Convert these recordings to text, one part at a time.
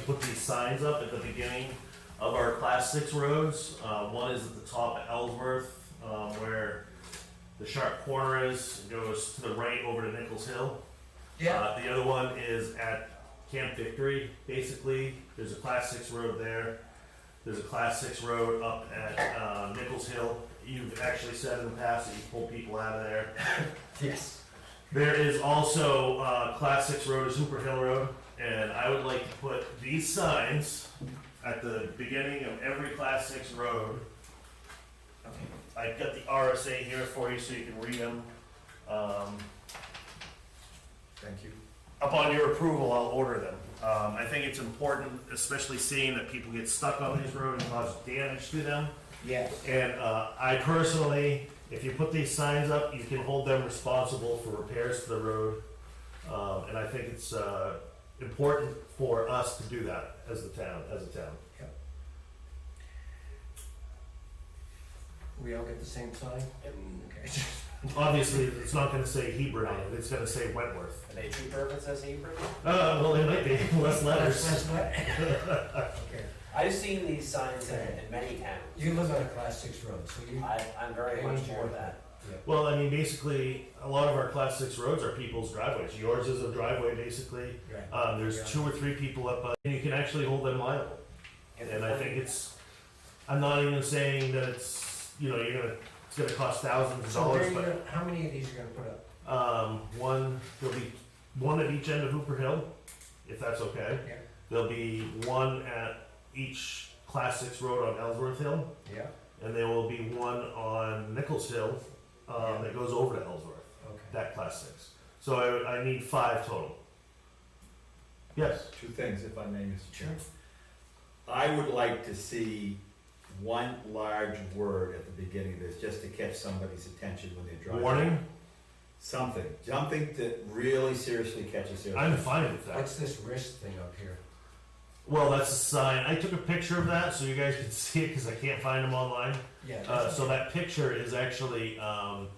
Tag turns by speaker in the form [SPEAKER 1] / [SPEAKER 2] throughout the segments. [SPEAKER 1] put these signs up at the beginning of our class six roads. Uh, one is at the top of Ellsworth, um, where the sharp corner is, goes to the right over to Nichols Hill.
[SPEAKER 2] Yeah,
[SPEAKER 1] Uh, the other one is at Camp Victory, basically. There's a class six road there. There's a class six road up at uh, Nichols Hill. You've actually said in the past that you pull people out of there.
[SPEAKER 2] yes.
[SPEAKER 1] There is also uh, class six road is Hooper Hill Road, and I would like to put these signs at the beginning of every class six road. I've got the RSA here for you so you can read them. Um,
[SPEAKER 2] Thank you.
[SPEAKER 1] upon your approval, I'll order them. Um, I think it's important, especially seeing that people get stuck on these roads and cause damage to them.
[SPEAKER 2] Yes.
[SPEAKER 1] And, uh, I personally, if you put these signs up, you can hold them responsible for repairs to the road. Um, and I think it's, uh, important for us to do that as the town, as a town.
[SPEAKER 2] We all get the same sign? Okay.
[SPEAKER 1] Obviously, it's not gonna say Hebron, on it, it's gonna say Wentworth.
[SPEAKER 3] Are they cheaper if it says Hebrew?
[SPEAKER 1] Uh, well, it might be, less letters.
[SPEAKER 2] That's what- Okay.
[SPEAKER 3] I've seen these signs in, in many towns.
[SPEAKER 2] You live on a class six road, so you,
[SPEAKER 3] I, I'm very much for that.
[SPEAKER 1] Well, I mean, basically, a lot of our class six roads are people's driveways. Yours is a driveway, basically.
[SPEAKER 2] right.
[SPEAKER 1] Um, there's
[SPEAKER 2] Yeah.
[SPEAKER 1] two or three people up, uh, and you can actually hold them liable. And I think it's, I'm not even saying that it's, you know, you're gonna, it's gonna cost thousands of
[SPEAKER 2] So where are
[SPEAKER 1] dollars,
[SPEAKER 2] you
[SPEAKER 1] but,
[SPEAKER 2] gonna, how many of these are you gonna put up?
[SPEAKER 1] um, one, there'll be one at each end of Hooper Hill, if that's okay.
[SPEAKER 2] Yeah.
[SPEAKER 1] There'll be one at each Class Six road on Ellsworth Hill,
[SPEAKER 2] Yeah.
[SPEAKER 1] and there will be one on Nichols Hill,
[SPEAKER 2] Yeah.
[SPEAKER 1] um, that goes over to Ellsworth,
[SPEAKER 2] Okay.
[SPEAKER 1] that Class Six. So I, I need five total. Yes,
[SPEAKER 4] Two things, if I may, Mr.
[SPEAKER 2] Sure.
[SPEAKER 4] Chairman. I would like to see one large word at the beginning of this, just to catch somebody's attention when they're driving.
[SPEAKER 1] warning,
[SPEAKER 4] Something, something that really seriously catches their.
[SPEAKER 1] I'm fine with that.
[SPEAKER 2] What's this wrist thing up here?
[SPEAKER 1] Well, that's a sign. I took a picture of that so you guys can see it because I can't find them online.
[SPEAKER 2] Yeah.
[SPEAKER 1] Uh,
[SPEAKER 2] that's-
[SPEAKER 1] so that picture is actually, um,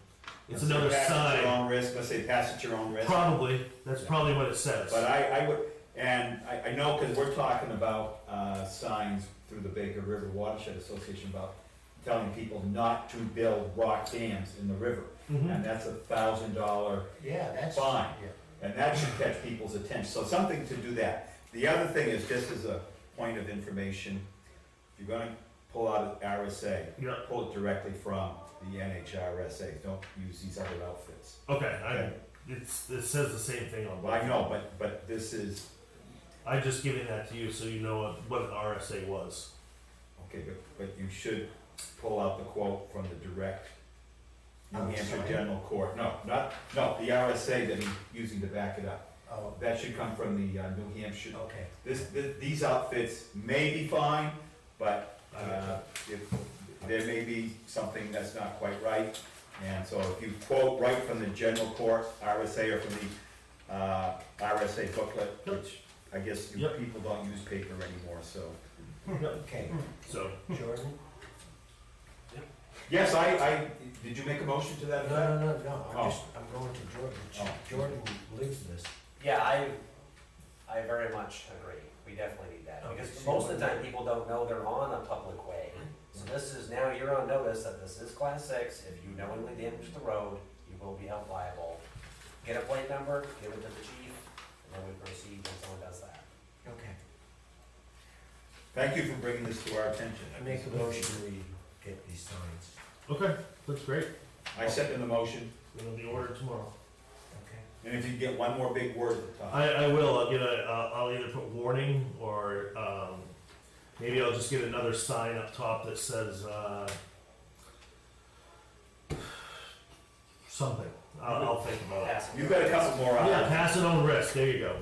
[SPEAKER 1] it's
[SPEAKER 4] Let's say
[SPEAKER 1] another
[SPEAKER 4] pass at your
[SPEAKER 1] sign.
[SPEAKER 4] own risk, let's say pass at your own risk.
[SPEAKER 1] Probably, that's probably what it says.
[SPEAKER 4] But I, I would, and I, I know, because we're talking about, uh, signs through the Baker River Watershed Association about telling people not to build rock dams in the river.
[SPEAKER 1] Mhm.
[SPEAKER 4] And that's a thousand dollar
[SPEAKER 2] Yeah, that's.
[SPEAKER 4] Fine.
[SPEAKER 2] Yeah.
[SPEAKER 4] And that should catch people's attention, so something to do that. The other thing is, just as a point of information, if you're gonna pull out an RSA,
[SPEAKER 1] Yeah,
[SPEAKER 4] pull it directly from the NHRSA, don't use these other outfits.
[SPEAKER 1] okay, I, it's, it says the same thing on
[SPEAKER 4] Well, I
[SPEAKER 1] both.
[SPEAKER 4] know, but, but this is,
[SPEAKER 1] I'm just giving that to you so you know what, what an RSA was.
[SPEAKER 4] okay, but, but you should pull out the quote from the direct New
[SPEAKER 2] I'm
[SPEAKER 4] Hampshire
[SPEAKER 2] sorry?
[SPEAKER 4] General Court, no, not, no, the RSA that he's using to back it up.
[SPEAKER 2] Oh,
[SPEAKER 4] That should come from the uh, New Hampshire,
[SPEAKER 2] okay.
[SPEAKER 4] this, th- these outfits may be fine, but, uh, if, there may be something that's not quite right. And so if you quote right from the general court RSA or from the, uh, RSA booklet,
[SPEAKER 1] Yep.
[SPEAKER 4] which I guess you
[SPEAKER 1] Yep.
[SPEAKER 4] people don't use paper anymore, so.
[SPEAKER 2] Okay,
[SPEAKER 1] So,
[SPEAKER 2] Jordan?
[SPEAKER 4] Yes, I, I, did you make a motion to that
[SPEAKER 2] No,
[SPEAKER 4] effect?
[SPEAKER 2] no, no, no, I'm
[SPEAKER 4] Oh.
[SPEAKER 2] just, I'm going to Jordan.
[SPEAKER 4] Oh.
[SPEAKER 2] Jordan lives this.
[SPEAKER 3] Yeah, I, I very much agree. We definitely need that. Because most of the time, people don't know they're on a public way. So this is, now you're on notice that this is class six. If you knowingly damage the road, you will be held liable. Get a plate number, give it to the chief, and then we proceed when someone does that.
[SPEAKER 2] Okay.
[SPEAKER 4] Thank you for bringing this to our attention.
[SPEAKER 2] I make a motion, we get these signs.
[SPEAKER 1] okay, that's great.
[SPEAKER 4] I second the motion,
[SPEAKER 1] It'll be ordered tomorrow.
[SPEAKER 2] Okay.
[SPEAKER 4] and if you get one more big word at the top.
[SPEAKER 1] I, I will, I'll get a, uh, I'll either put warning or, um, maybe I'll just get another sign up top that says, uh, something. I'll, I'll think about it.
[SPEAKER 3] Pass it.
[SPEAKER 4] You've got a couple more on.
[SPEAKER 1] Yeah, pass it on risk, there you go.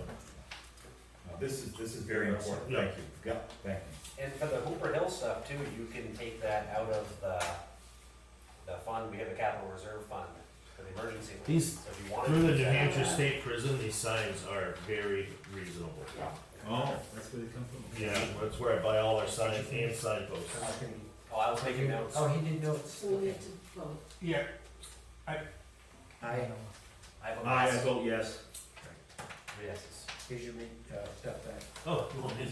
[SPEAKER 4] Now, This is, this is very important,
[SPEAKER 1] Yeah.
[SPEAKER 4] thank you, yeah, thank you.
[SPEAKER 3] And for the Hooper Hill stuff too, you can take that out of the, the fund, we have a capital reserve fund for the emergency. fund.
[SPEAKER 1] These-
[SPEAKER 3] So if you wanted to
[SPEAKER 1] Through the
[SPEAKER 3] take
[SPEAKER 1] New
[SPEAKER 3] that out of
[SPEAKER 1] Hampshire
[SPEAKER 3] that-
[SPEAKER 1] State Prison, these signs are very reasonable.
[SPEAKER 3] Yeah.
[SPEAKER 4] Oh, that's where they come from?
[SPEAKER 1] Yeah, that's where I buy all our signs and signposts.
[SPEAKER 2] So it's gonna be-
[SPEAKER 3] Oh, I was making notes.
[SPEAKER 2] Oh, he did notes,
[SPEAKER 5] So we
[SPEAKER 2] okay.
[SPEAKER 5] have to vote.
[SPEAKER 6] Yeah,
[SPEAKER 2] I, um,
[SPEAKER 3] I
[SPEAKER 1] Oh,
[SPEAKER 3] have a
[SPEAKER 4] Aye, Ah, I
[SPEAKER 3] mess.
[SPEAKER 4] vote yes.
[SPEAKER 3] Three yeses.
[SPEAKER 2] here's your, re- uh, stuff back.
[SPEAKER 1] Oh, you want his?